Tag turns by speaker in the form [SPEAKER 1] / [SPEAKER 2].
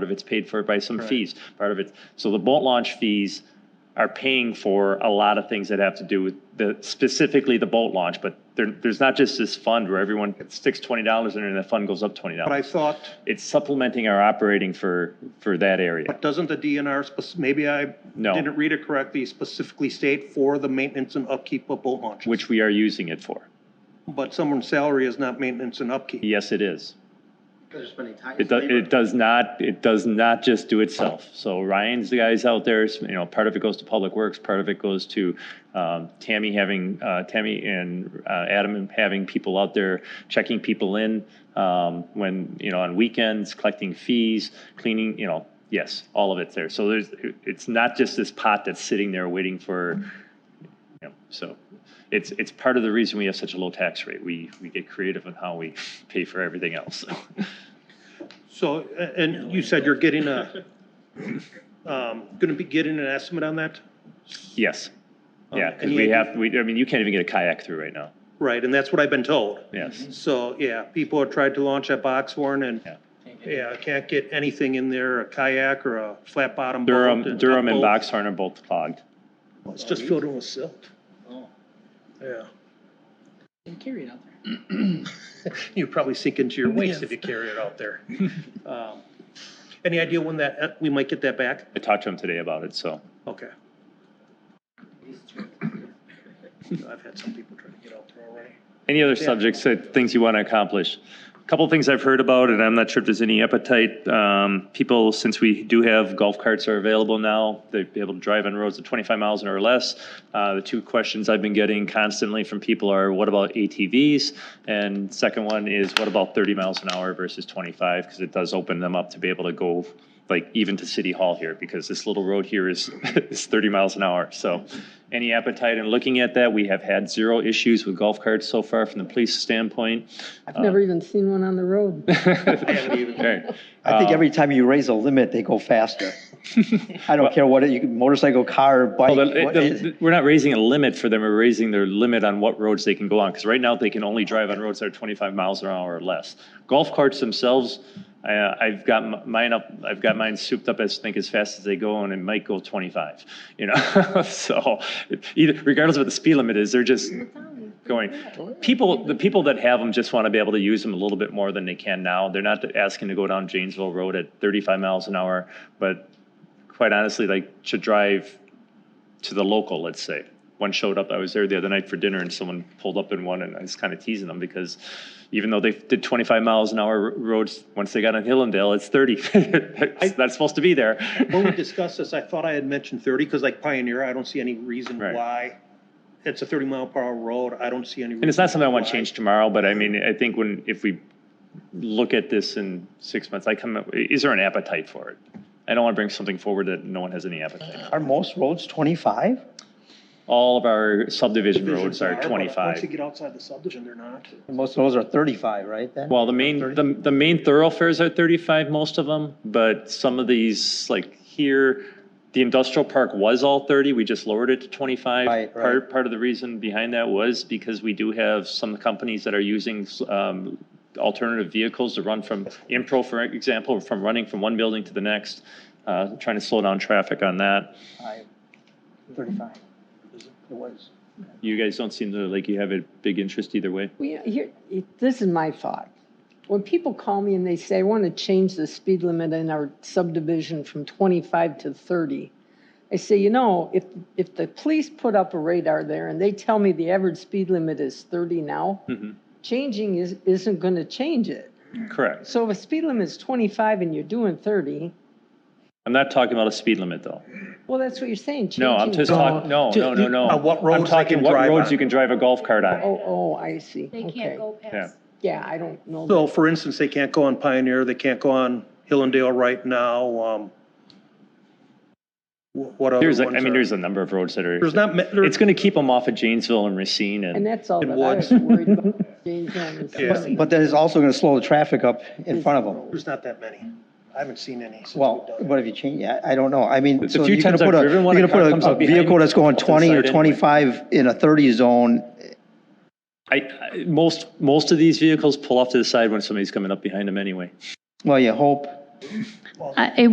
[SPEAKER 1] Part of it's paid for by some fees, part of it, so the boat launch fees are paying for a lot of things that have to do with the, specifically the boat launch, but there, there's not just this fund where everyone sticks twenty dollars in and the fund goes up twenty
[SPEAKER 2] But I
[SPEAKER 1] dollars.
[SPEAKER 2] thought,
[SPEAKER 1] It's supplementing our operating for, for that area.
[SPEAKER 2] but doesn't the DNR, spec- maybe I
[SPEAKER 1] No.
[SPEAKER 2] didn't read it correctly, specifically state for the maintenance and upkeep of boat launches?
[SPEAKER 1] which we are using it for.
[SPEAKER 2] But someone's salary is not maintenance and upkeep.
[SPEAKER 1] Yes, it is.
[SPEAKER 3] There's been a time.
[SPEAKER 1] It does, it does not, it does not just do itself. So Ryan's the guys out there, you know, part of it goes to Public Works, part of it goes to um, Tammy having, uh, Tammy and uh, Adam having people out there checking people in um, when, you know, on weekends, collecting fees, cleaning, you know, yes, all of it's there. So there's, it- it's not just this pot that's sitting there waiting for, you know, so it's, it's part of the reason we have such a low tax rate. We, we get creative on how we pay for everything else.
[SPEAKER 2] So, a- and you said you're getting a, um, gonna be getting an estimate on that?
[SPEAKER 1] Yes. Yeah, because
[SPEAKER 2] Any
[SPEAKER 1] we
[SPEAKER 2] idea?
[SPEAKER 1] have, we, I mean, you can't even get a kayak through right now.
[SPEAKER 2] Right, and that's what I've been told.
[SPEAKER 1] Yes.
[SPEAKER 2] So, yeah, people have tried to launch a box one and,
[SPEAKER 1] Yeah.
[SPEAKER 2] yeah, can't get anything in there, a kayak or a flat bottom boat.
[SPEAKER 1] Durham,
[SPEAKER 2] a
[SPEAKER 1] Durham and
[SPEAKER 2] tugboat.
[SPEAKER 1] Boxhorn are both clogged.
[SPEAKER 2] It's just filled in with silt, Oh. yeah.
[SPEAKER 3] And carry it out there.
[SPEAKER 2] You probably sink into your waist if you carry it out there. Um, Any idea when that, uh, we might get that back?
[SPEAKER 1] I talked to him today about it, so.
[SPEAKER 2] Okay. I've had some people try to get out there already.
[SPEAKER 1] Any other
[SPEAKER 2] Yeah.
[SPEAKER 1] subjects, that things you want to accomplish? A Couple things I've heard about, and I'm not sure if there's any appetite. Um, people, since we do have golf carts are available now, they're able to drive on roads of 25 miles an hour or less. Uh, the two questions I've been getting constantly from people are, what about ATVs? And second one is, what about 30 miles an hour versus 25? Because it does open them up to be able to go, like, even to City Hall here, because this little road here is, is 30 miles an hour. So any appetite in looking at that? We have had zero issues with golf carts so far from the police standpoint.
[SPEAKER 4] I've never even seen one on the road.
[SPEAKER 1] Right.
[SPEAKER 5] I
[SPEAKER 1] Um,
[SPEAKER 5] think every time you raise a limit, they go faster. I don't care what, it- you can- motorcycle, car, bike.
[SPEAKER 1] Well, the-
[SPEAKER 5] what
[SPEAKER 1] the-
[SPEAKER 5] is-
[SPEAKER 1] We're not raising a limit for them, we're raising their limit on what roads they can go on, because right now they can only drive on roads that are 25 miles an hour or less. Golf carts themselves, I- I've got m- mine up, I've got mine souped up as, think as fast as they go, and it might go 25, you know? So either, regardless of what the speed limit is, they're just going. People, the people that have them just want to be able to use them a little bit more than they can now. They're not asking to go down Janesville Road at 35 miles an hour, but quite honestly, like to drive to the local, let's say. One showed up, I was there the other night for dinner and someone pulled up in one and I was kind of teasing them because even though they did 25 miles an hour r- roads, once they got on Hillendale, it's 30. It's not supposed to be there.
[SPEAKER 2] When we discussed this, I thought I had mentioned thirty, because like Pioneer, I don't see any reason
[SPEAKER 1] Right.
[SPEAKER 2] why. It's a thirty mile per hour road, I don't see any.
[SPEAKER 1] And it's not something I want to change tomorrow, but I mean, I think when, if we look at this in six months, I come, up- is there an appetite for it? I don't want to bring something forward that no one has any appetite. for.
[SPEAKER 5] Are most roads 25?
[SPEAKER 1] All of our subdivision roads are
[SPEAKER 2] But Once you
[SPEAKER 1] 25.
[SPEAKER 2] get outside the subdivision, they're not.
[SPEAKER 5] Most roads are 35, right then?
[SPEAKER 1] Well, the main, the, the main thoroughfares are 35, most of them, but some of these, like here, the industrial park was all 30, we just lowered it to 25.
[SPEAKER 5] Right, right.
[SPEAKER 1] Part, part of the reason behind that was because we do have some companies that are using um, alternative vehicles to run from, Impro, for example, from running from one building to the next, uh, trying to slow down traffic on that.
[SPEAKER 5] I- 35. It was.
[SPEAKER 1] You guys don't seem to, like, you have a big interest either way.
[SPEAKER 4] Well, you know, here, it- this is my thought. When people call me and they say, I want to change the speed limit in our subdivision from 25 to 30, I say, you know, if, if the police put up a radar there and they tell me the average speed limit is 30 now,
[SPEAKER 1] Mhm.
[SPEAKER 4] changing is, isn't going to change it.
[SPEAKER 5] Mm.
[SPEAKER 1] Correct.
[SPEAKER 4] So if a speed limit is 25 and you're doing 30,
[SPEAKER 1] I'm not talking about a speed limit, though.
[SPEAKER 4] well, that's what you're saying.
[SPEAKER 1] No, I'm
[SPEAKER 4] changing
[SPEAKER 1] just
[SPEAKER 4] the-
[SPEAKER 1] talking, no, no, no, no.
[SPEAKER 2] on uh, what
[SPEAKER 1] I'm
[SPEAKER 2] roads they
[SPEAKER 1] talking
[SPEAKER 2] can
[SPEAKER 1] what
[SPEAKER 2] drive
[SPEAKER 1] roads
[SPEAKER 2] on.
[SPEAKER 1] you can drive a golf cart on.
[SPEAKER 4] Oh, oh, I see.
[SPEAKER 6] They
[SPEAKER 4] Okay.
[SPEAKER 6] can't go past.
[SPEAKER 4] Yeah, I don't know.
[SPEAKER 2] So for instance, they can't go on Pioneer, they can't go on Hillendale right now, um. wh- What other
[SPEAKER 1] There's,
[SPEAKER 2] ones
[SPEAKER 1] a- I mean,
[SPEAKER 2] are-
[SPEAKER 1] there's a number of roads that are,
[SPEAKER 2] There's not, ma- there-
[SPEAKER 1] it's gonna keep them off of Janesville and Racine
[SPEAKER 4] And
[SPEAKER 1] and,
[SPEAKER 4] that's all
[SPEAKER 2] And
[SPEAKER 4] that I
[SPEAKER 2] woods.
[SPEAKER 4] was worried about. James Hammond.
[SPEAKER 2] Yeah.
[SPEAKER 5] But that is also going to slow the traffic up in front of them.
[SPEAKER 2] there's not that many. I haven't seen any since we've
[SPEAKER 5] Well,
[SPEAKER 2] done it.
[SPEAKER 5] what if you change, I, I don't know, I mean.
[SPEAKER 1] It's a
[SPEAKER 5] so
[SPEAKER 1] few
[SPEAKER 5] you're gonna
[SPEAKER 1] times I've
[SPEAKER 5] put a-
[SPEAKER 1] driven one,
[SPEAKER 5] You're
[SPEAKER 1] a car
[SPEAKER 5] gonna
[SPEAKER 1] comes
[SPEAKER 5] put a- a
[SPEAKER 1] up behind
[SPEAKER 5] vehicle
[SPEAKER 1] me,
[SPEAKER 5] that's going
[SPEAKER 1] off to the
[SPEAKER 5] 20
[SPEAKER 1] side
[SPEAKER 5] or
[SPEAKER 1] anyway.
[SPEAKER 5] 25 in a 30 zone,
[SPEAKER 1] I, I- most, most of these vehicles pull off to the side when somebody's coming up behind them anyway.
[SPEAKER 5] well, you hope,
[SPEAKER 6] I- It